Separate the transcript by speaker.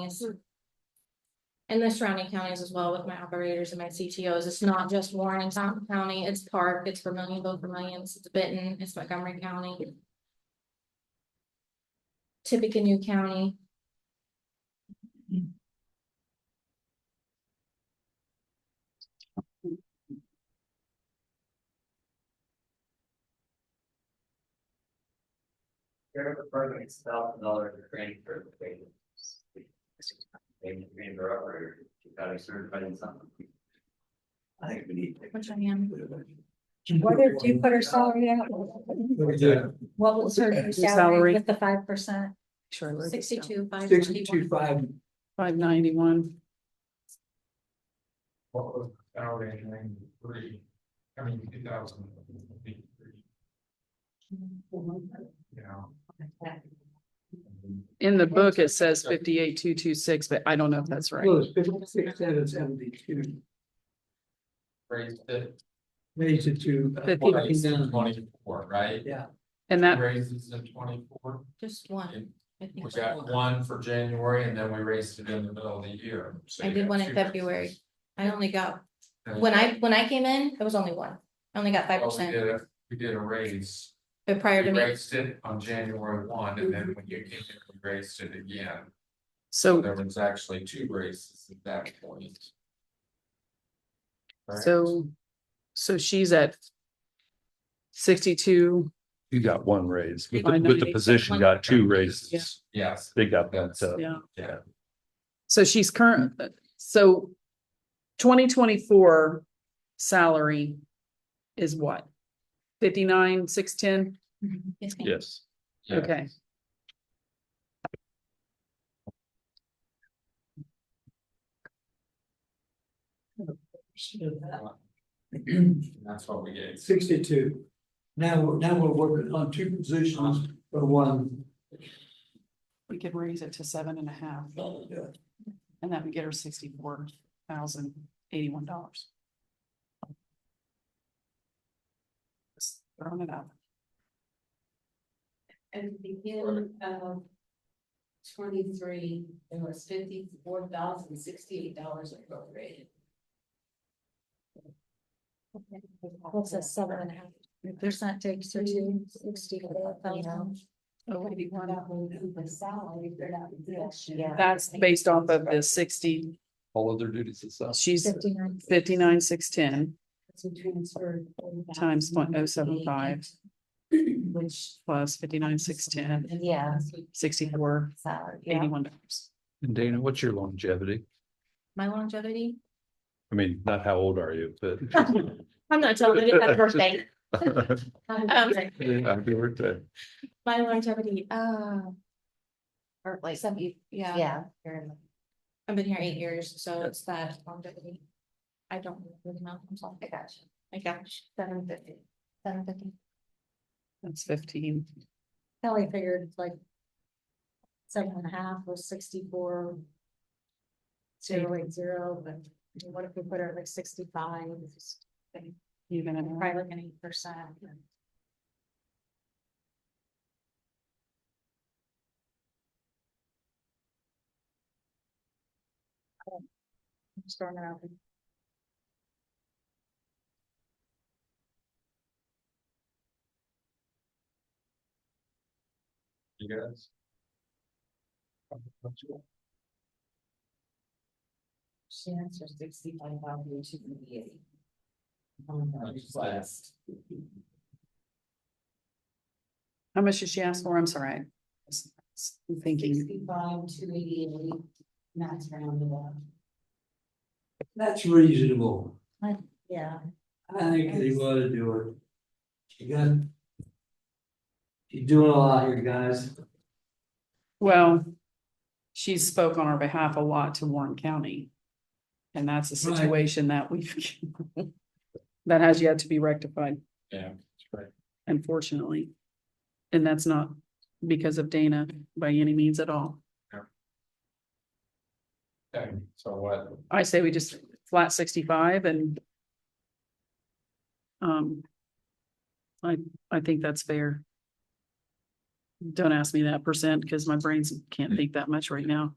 Speaker 1: counties. And the surrounding counties as well with my operators and my CTOs. It's not just Warren and Tompkins County, it's Park, it's Vermillion, Vermillions, it's Benton, it's Montgomery County. Tippecanoe County.
Speaker 2: Here the program is thousand dollar training for the training. Maybe train their operator, you gotta be certified in something. I think we need.
Speaker 1: Which I am.
Speaker 3: What did you put her salary at? What was her salary
Speaker 4: Salary.
Speaker 3: with the five percent?
Speaker 4: Sure. I wrote this down.
Speaker 1: Sixty-two, five.
Speaker 5: Sixty-two five,
Speaker 4: Five ninety-one,
Speaker 6: What was the salary in ninety-three? I mean, two thousand and three, you know?
Speaker 4: in the book, it says fifty-eight, two, two, six, but I don't know if that's right.
Speaker 5: well, it's fifty-six, seven seventy-two,
Speaker 6: Raised it.
Speaker 5: raised it to uh,
Speaker 4: Fifty.
Speaker 6: Raised
Speaker 5: 49.
Speaker 6: in Twenty-four, right?
Speaker 5: Yeah,
Speaker 4: And that,
Speaker 6: Raises in twenty-four,
Speaker 1: Just one.
Speaker 6: and
Speaker 1: I think.
Speaker 6: we got one for January and then we raised it in the middle of the year. So
Speaker 1: I
Speaker 6: you
Speaker 1: did
Speaker 6: got
Speaker 1: one in
Speaker 6: two raises.
Speaker 1: February. I only got,
Speaker 6: And-
Speaker 1: when I, when I came in, it was only one. I only got five
Speaker 6: Well, we
Speaker 1: percent,
Speaker 6: did a- We did a raise,
Speaker 1: but
Speaker 6: we
Speaker 1: prior to me,
Speaker 6: raised it on January one and then when you came in, we raised it again. So
Speaker 4: so,
Speaker 6: There was actually two races at that point. Right?
Speaker 4: so, so she's at sixty-two,
Speaker 7: You got one raise, but
Speaker 4: I
Speaker 7: the,
Speaker 4: know
Speaker 7: but
Speaker 4: they-
Speaker 7: the position got two raises.
Speaker 6: Yes,
Speaker 7: They got that, uh,
Speaker 4: yeah.
Speaker 6: yeah,
Speaker 4: So she's current, so twenty twenty-four salary is what? Fifty-nine, six, ten?
Speaker 1: it's been
Speaker 7: yes.
Speaker 6: Yeah.
Speaker 4: Okay.
Speaker 6: and that's what we gave.
Speaker 5: sixty-two. Now, we're- now we're working on two positions for one.
Speaker 4: We could raise it to seven and a half,
Speaker 5: Yeah.
Speaker 4: and that would get her sixty-four thousand, eighty-one dollars. Throwing it out.
Speaker 8: At the beginning of twenty-three, it was fifty-four thousand sixty-eight dollars appropriated.
Speaker 1: What's a seven and a half?
Speaker 3: Percent takes her to sixty-four thousand.
Speaker 8: The salary for that position.
Speaker 4: That's based off of the sixty,
Speaker 7: All other duties aside.
Speaker 4: she's
Speaker 3: Fifty-nine.
Speaker 4: fifty-nine, six, ten
Speaker 8: So transferred. $40,000
Speaker 4: times point oh seven five
Speaker 8: Which.
Speaker 4: plus fifty-nine, six, ten,
Speaker 8: Yeah.
Speaker 4: sixty-four,
Speaker 8: Salary, yeah.
Speaker 4: eighty-one dollars.
Speaker 7: And Dana, what's your longevity?
Speaker 1: My longevity?
Speaker 7: I mean, not how old are you, but.
Speaker 1: I'm not telling you, happy birthday. Um,
Speaker 7: Happy birthday.
Speaker 1: my longevity, uh,
Speaker 8: Or like,
Speaker 1: seventy, yeah,
Speaker 8: yeah. fair
Speaker 1: I've been here eight years, so it's that longevity. I don't really know, I'm sorry.
Speaker 8: enough. I got you.
Speaker 1: My gosh,
Speaker 8: Seven fifty.
Speaker 1: seven fifty.
Speaker 4: That's fifteen.
Speaker 3: Kelly figured like seven and a half was sixty-four, zero eight zero, but what if we put her at like sixty-five?
Speaker 4: You're gonna
Speaker 3: Probably like an eight percent. Just throwing it out. there.
Speaker 6: You guys?
Speaker 8: She answered sixty-five thousand, she's gonna be eighty.
Speaker 6: That's last.
Speaker 4: How much did she ask for? I'm sorry. I was Thinking,
Speaker 8: Sixty-five, two eighty-eight, that's rounded up.
Speaker 5: That's reasonable.
Speaker 8: Yeah.
Speaker 5: I think they want to do it. You got. You're doing a lot here, guys.
Speaker 4: well, she spoke on our behalf a lot to Warren County. And that's a
Speaker 5: Right.
Speaker 4: situation that we've, that has yet to be rectified.
Speaker 6: Yeah, that's right.
Speaker 4: unfortunately. And that's not because of Dana by any means at all.
Speaker 6: Okay, so what,
Speaker 4: I say we just flat sixty-five and um, I, I think that's fair. Don't ask me that percent because my brains can't think that much right now.